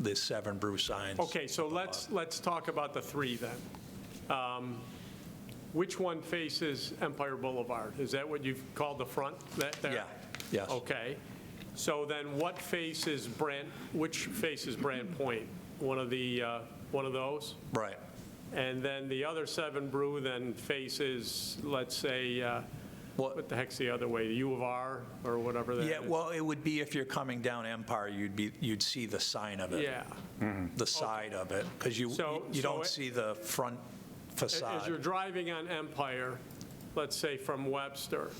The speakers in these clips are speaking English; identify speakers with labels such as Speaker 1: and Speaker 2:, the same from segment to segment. Speaker 1: the seven brew signs.
Speaker 2: Okay, so let's, let's talk about the three then. Um, Which one faces Empire Boulevard? Is that what you've called the front, that there?
Speaker 1: Yeah, yes.
Speaker 2: Okay, so then what faces Brand, which faces Brand Point? One of the, uh, one of those?
Speaker 1: Right.
Speaker 2: And then the other seven brew then faces, let's say, uh,
Speaker 1: Well-
Speaker 2: what the heck's the other way, the U of R or whatever that is?
Speaker 1: Yeah, well, it would be if you're coming down Empire, you'd be, you'd see the sign of it.
Speaker 2: Yeah.
Speaker 1: The side of it, because you,
Speaker 2: So-
Speaker 1: you
Speaker 2: so
Speaker 1: don't
Speaker 2: it-
Speaker 1: see the front
Speaker 2: As you're
Speaker 1: facade.
Speaker 2: driving on Empire, let's say from Webster,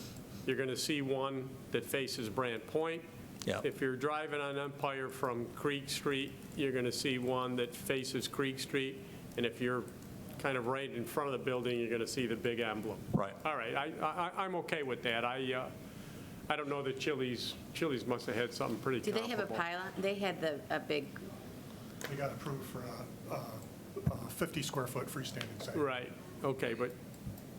Speaker 2: you're going to see one that faces Brant Point.
Speaker 1: Yeah.
Speaker 2: If you're driving on Empire from Creek Street, you're going to see one that faces Creek Street. And if you're kind of right in front of the building, you're going to see the big emblem.
Speaker 1: Right.
Speaker 2: All right, I, I, I'm okay with that. I, uh, I don't know that Chili's, Chili's must have had something pretty
Speaker 3: Do they
Speaker 2: comparable.
Speaker 3: have a pylon? They had the, a big,
Speaker 4: We got approved for a- a 50-square-foot freestanding sign.
Speaker 2: Right, okay, but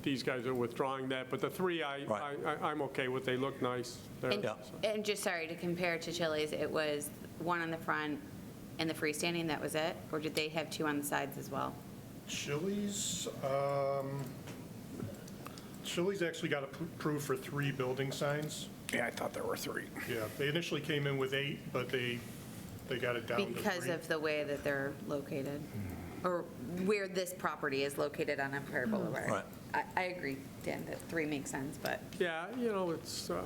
Speaker 2: these guys are withdrawing that, but the three, I, I,
Speaker 1: Right.
Speaker 2: I- I'm okay with, they look nice. They're-
Speaker 3: and,
Speaker 1: Yeah.
Speaker 3: and just, sorry, to compare it to Chili's, it was one on the front and the freestanding, that was it? Or did they have two on the sides as well?
Speaker 4: Chili's, um, Chili's actually got approved for three building signs.
Speaker 5: Yeah, I thought there were three.
Speaker 4: Yeah, they initially came in with eight, but they, they got it down to three.
Speaker 3: Because of the way that they're located, or where this property is located on Empire Boulevard.
Speaker 1: Right.
Speaker 3: I, I agree, Dan, that three makes sense, but
Speaker 2: Yeah, you know, it's, uh,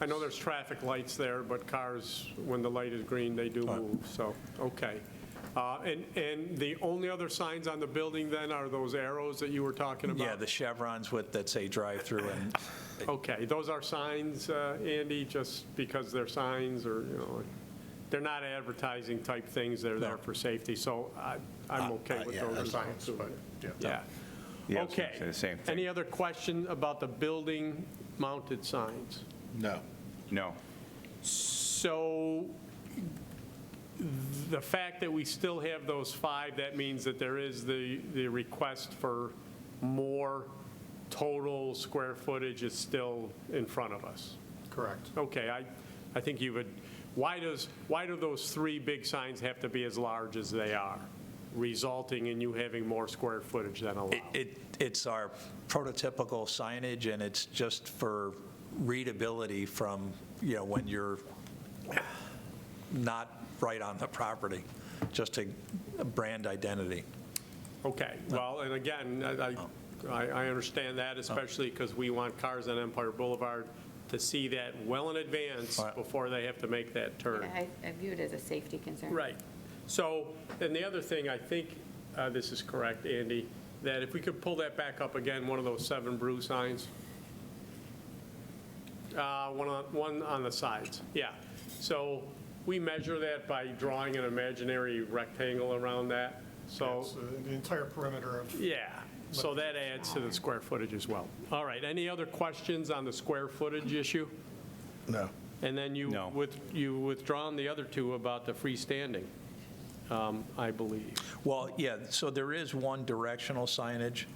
Speaker 2: I know there's traffic lights there, but cars, when the light is green, they do move, so, okay. Uh, And, and the only other signs on the building then are those arrows that you were talking about?
Speaker 1: Yeah, the chevrons with, that say drive-through and,
Speaker 2: Okay, those are signs, uh, Andy, just because they're signs or, you know, they're not advertising type things, they're there for safety, so I,
Speaker 1: Uh,
Speaker 2: I'm okay with
Speaker 6: yeah,
Speaker 2: those
Speaker 6: that's-
Speaker 2: signs, but, yeah.
Speaker 5: Yeah, I was gonna
Speaker 2: Okay.
Speaker 5: say the same thing.
Speaker 2: Any other question about the building mounted signs?
Speaker 6: No.
Speaker 5: No.
Speaker 2: So the fact that we still have those five, that means that there is the, the request for more total square footage is still in front of us.
Speaker 4: Correct.
Speaker 2: Okay, I, I think you would, why does, why do those three big signs have to be as large as they are, resulting in you having more square footage than allowed?
Speaker 1: it- it, it's our prototypical signage, and it's just for readability from, you know, when you're not right on the property, just a brand identity.
Speaker 2: Okay, well, and again, I,
Speaker 1: Oh.
Speaker 2: I I understand that, especially because we want cars on Empire Boulevard to see that well in advance
Speaker 1: All right.
Speaker 2: before they have to make that turn.
Speaker 3: I, I view it as a safety concern.
Speaker 2: Right. So, and the other thing, I think, uh, this is correct, Andy, that if we could pull that back up again, one of those seven brew signs. Uh, One on, one on the sides, yeah. So we measure that by drawing an imaginary rectangle around that, so.
Speaker 4: It's, uh, The entire perimeter of,
Speaker 2: Yeah, so that adds to the square footage as well. All right, any other questions on the square footage issue?
Speaker 6: No.
Speaker 2: And then you,
Speaker 5: No.
Speaker 2: with, you withdrawn the other two about the freestanding, um, I believe.
Speaker 1: Well, yeah, so there is one directional signage,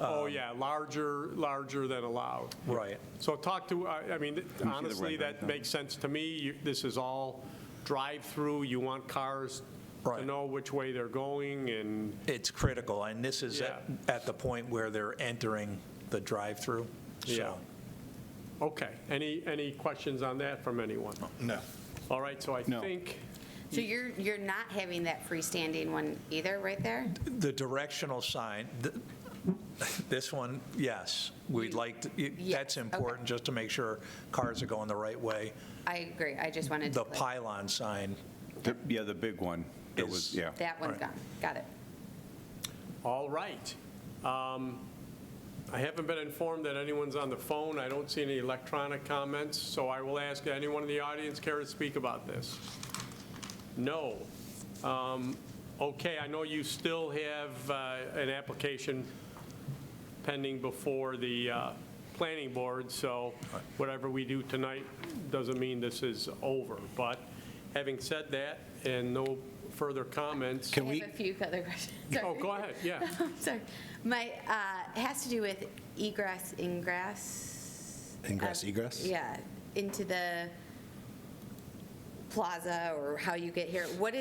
Speaker 5: Um,
Speaker 2: Oh, yeah, larger, larger than allowed.
Speaker 1: right?
Speaker 2: So talk to, I I mean, honestly,
Speaker 5: rendering,
Speaker 2: that
Speaker 5: huh?
Speaker 2: makes sense to me. You- This is all drive-through, you want cars to
Speaker 1: Right.
Speaker 2: know which way they're going and
Speaker 1: It's critical, and this is at, at the point where they're entering the drive-through. so-
Speaker 2: Yeah. Okay, any, any questions on that from anyone?
Speaker 6: No.
Speaker 2: All right, so I
Speaker 5: No.
Speaker 2: think,
Speaker 3: So you're, you're not having that freestanding one either, right there?
Speaker 1: The directional sign, th- this one, yes, we'd like, to- it-
Speaker 3: Yeah,
Speaker 1: that's
Speaker 3: okay.
Speaker 1: important, just to make sure cars are going the right way.
Speaker 3: I agree, I just wanted to.
Speaker 1: The
Speaker 3: like-
Speaker 1: pylon sign,
Speaker 5: The- Yeah, the big one. That was,
Speaker 1: Is-
Speaker 5: yeah.
Speaker 3: That one's
Speaker 1: Right.
Speaker 3: gone, got it.
Speaker 2: All right. Um, I haven't been informed that anyone's on the phone. I don't see any electronic comments, so I will ask anyone in the audience care to speak about this? No. Um, Okay, I know you still have uh, an application pending before the uh, planning board, so whatever we do tonight doesn't mean this is over. But having said that, and no further comments,
Speaker 3: I have a few other questions.
Speaker 2: oh, go ahead, yeah.
Speaker 3: Sorry. My, uh, it has to do with egress, ingress. Um,
Speaker 6: Ingress,
Speaker 3: of-
Speaker 6: egress?
Speaker 3: Yeah, into the plaza or how you get here. What is